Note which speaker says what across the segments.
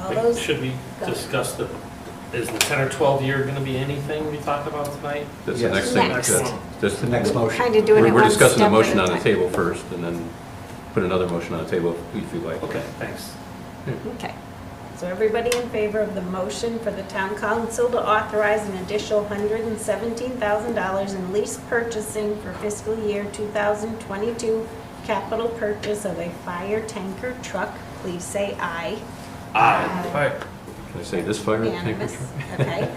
Speaker 1: All those,
Speaker 2: Should we discuss the, is the 10 or 12 year going to be anything we talk about tonight?
Speaker 3: That's the
Speaker 4: Yes.
Speaker 3: next thing.
Speaker 1: Next.
Speaker 3: That's- that's-
Speaker 4: The next motion.
Speaker 1: kind of doing
Speaker 3: We're
Speaker 1: it
Speaker 3: we're
Speaker 1: one
Speaker 3: discussing the
Speaker 1: step
Speaker 3: motion
Speaker 1: at
Speaker 3: on
Speaker 1: a
Speaker 3: the
Speaker 1: time.
Speaker 3: table first, and then put another motion on the table if you like.
Speaker 2: Okay, thanks.
Speaker 1: Okay. So everybody in favor of the motion for the town council to authorize an additional $117,000 in lease purchasing for fiscal year 2022 capital purchase of a fire tanker truck, please say aye.
Speaker 2: Aye.
Speaker 5: Aye.
Speaker 3: Can I say this fire tanker
Speaker 1: Unanimous,
Speaker 3: truck?
Speaker 1: okay?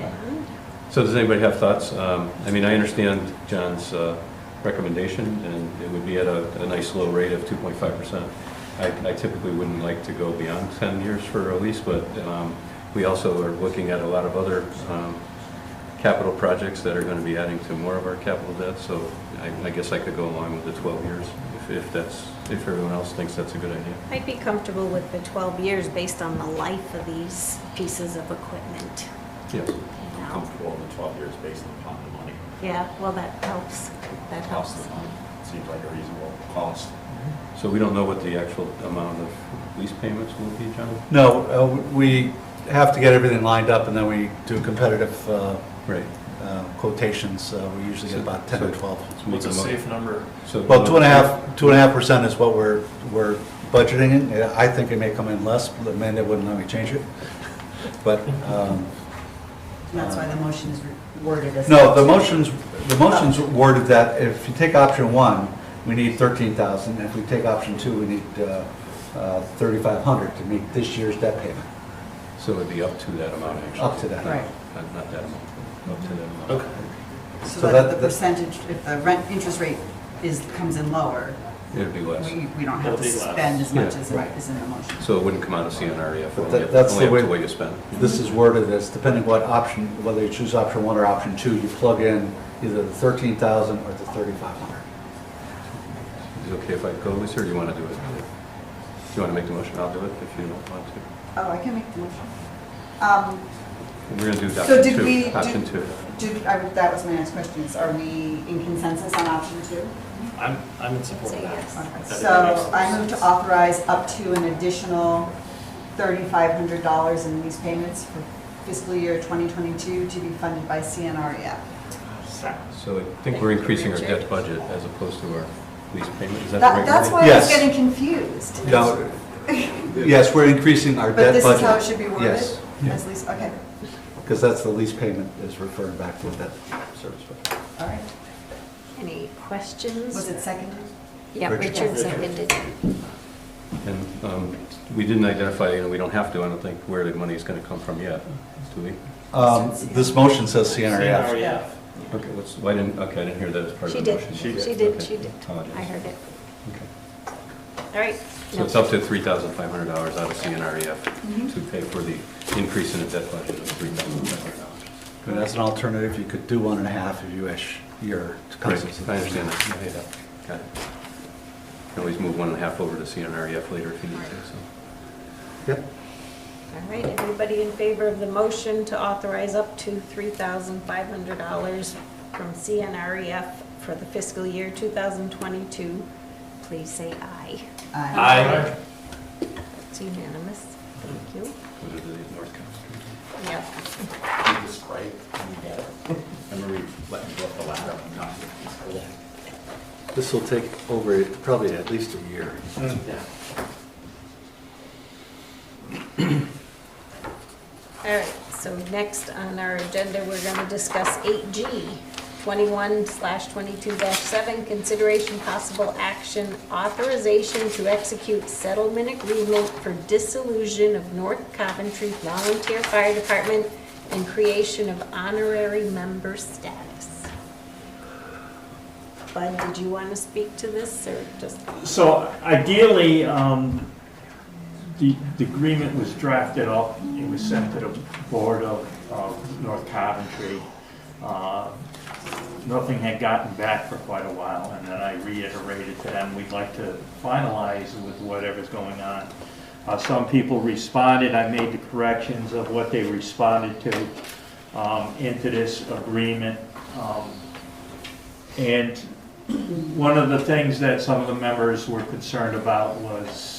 Speaker 1: And
Speaker 3: So does anybody have thoughts? Um, I mean, I understand John's uh, recommendation, and it would be at a, a nice low rate of 2.5%. I I typically wouldn't like to go beyond 10 years for a lease, but um, we also are looking at a lot of other um, capital projects that are going to be adding to more of our capital debt, so I I guess I could go along with the 12 years if- if that's, if everyone else thinks that's a good idea.
Speaker 1: I'd be comfortable with the 12 years based on the life of these pieces of equipment.
Speaker 3: Yes.
Speaker 1: you
Speaker 6: I'm
Speaker 1: know?
Speaker 6: comfortable in the 12 years based upon the money.
Speaker 1: Yeah, well, that helps. That helps.
Speaker 6: Cost of the money seems like a reasonable cost.
Speaker 3: So we don't know what the actual amount of lease payments will be, John?
Speaker 4: No, uh, we have to get everything lined up, and then we do competitive uh,
Speaker 3: Right.
Speaker 4: uh, quotations. Uh, We usually get about 10 or 12.
Speaker 3: So make
Speaker 5: What's a
Speaker 3: mo-
Speaker 5: safe number?
Speaker 3: So-
Speaker 4: Well, two and a half, two and a half percent is what we're, we're budgeting in. Yeah, I think it may come in less, but Amanda wouldn't let me change it. But, um,
Speaker 7: And that's why the motion is worded as.
Speaker 4: no, the motion's, the motion's worded that if you take option one, we need 13,000. If we take option two, we need uh, uh, 3,500 to meet this year's debt payment,
Speaker 3: So it'd be up to that amount, actually?
Speaker 4: up to that.
Speaker 7: Right.
Speaker 3: Not not that amount, up to that amount.
Speaker 2: Okay.
Speaker 4: so
Speaker 7: So that
Speaker 4: that-
Speaker 7: the
Speaker 4: that-
Speaker 7: percentage, if the rent, interest rate is, comes in lower,
Speaker 3: It'd be less.
Speaker 7: we, we don't have
Speaker 2: It'll
Speaker 7: to
Speaker 2: be less.
Speaker 7: spend as much
Speaker 3: Yeah.
Speaker 7: as is in the motion.
Speaker 3: So it wouldn't come out of CNREF,
Speaker 4: But
Speaker 3: E only
Speaker 4: that-
Speaker 3: up
Speaker 4: that's
Speaker 3: only
Speaker 4: the
Speaker 3: up
Speaker 4: way-
Speaker 3: to what you spend.
Speaker 4: This is worded as depending what option, whether you choose option one or option two, you plug in either the 13,000 or the 3,500.
Speaker 3: Is it okay if I go, Lisa, or do you want to do it? Do you want to make the motion? I'll do it if you don't want to.
Speaker 7: Oh, I can make the motion. Um,
Speaker 3: We're going to do
Speaker 7: So
Speaker 3: option
Speaker 7: did we?
Speaker 3: two. Option
Speaker 7: did-
Speaker 3: two.
Speaker 7: Did, I, that was my next question, is are we in consensus on option two?
Speaker 2: I'm, I'm in support
Speaker 1: Say
Speaker 2: of
Speaker 1: yes.
Speaker 2: that.
Speaker 7: Okay,
Speaker 2: That is-
Speaker 7: So I move to authorize up to an additional thirty-five hundred dollars in lease payments for fiscal year twenty twenty-two to be funded by CNREF.
Speaker 3: So I think we're increasing our debt budget as opposed to our lease payment. Is that the right
Speaker 7: That,
Speaker 3: word?
Speaker 7: that's why I
Speaker 4: Yes.
Speaker 7: was getting confused.
Speaker 4: No, yes, we're increasing our
Speaker 7: But
Speaker 4: debt budget.
Speaker 7: this is how it should be worded?
Speaker 4: Yes,
Speaker 7: As lease, okay,
Speaker 4: because that's the lease payment is referring back to the debt service. budget.
Speaker 7: all right.
Speaker 1: Any questions?
Speaker 7: Was it seconded?
Speaker 1: Yeah,
Speaker 7: Richard.
Speaker 1: Richard seconded.
Speaker 3: And um, we didn't identify, and we don't have to, I don't think, where the money is going to come from yet, do we?
Speaker 4: Um, This motion says CNRF.
Speaker 2: CNREF.
Speaker 3: Okay, what's, why didn't, okay, I didn't hear that as part
Speaker 1: She
Speaker 3: of the
Speaker 1: did,
Speaker 3: motion.
Speaker 1: she did,
Speaker 3: Okay,
Speaker 1: she did.
Speaker 3: apologize.
Speaker 1: I heard it.
Speaker 3: Okay.
Speaker 1: All right.
Speaker 3: So it's up to three thousand five hundred dollars out of
Speaker 1: Mm-hmm.
Speaker 3: CNREF E to pay for the increase in the debt budget of three thousand five hundred dollars.
Speaker 4: And as an alternative, you could do one and a half if you wish, your council's.
Speaker 3: I understand that. Yeah, yeah. Got it. Can always move one and a half over to CNREF E later if you need to, so.
Speaker 4: Yep.
Speaker 1: All right, everybody in favor of the motion to authorize up to $3,500 from CNREF E for the fiscal year 2022, please say aye.
Speaker 2: Aye.
Speaker 1: It's unanimous. Thank you.
Speaker 3: Go to the North Council.
Speaker 1: Yep.
Speaker 6: Can you describe when you get it? Remember we let you go up the ladder one time?
Speaker 4: This will take over probably at least a year.
Speaker 2: Yeah.
Speaker 1: All right, so next on our agenda, we're going to discuss 8G, 21/22-7, consideration possible action, authorization to execute settlement agreement for dissolution of North Coventry Volunteer Fire Department and creation of honorary member status. Bud, did you want to speak to this, or just?
Speaker 8: So ideally, um, the, the agreement was drafted up, it was sent to the board of, of North Coventry. Uh, Nothing had gotten back for quite a while, and then I reiterated to them, we'd like to finalize with whatever's going on. Uh, some people responded, I made the corrections of what they responded to, um, into this agreement. Um, And one of the things that some of the members were concerned about was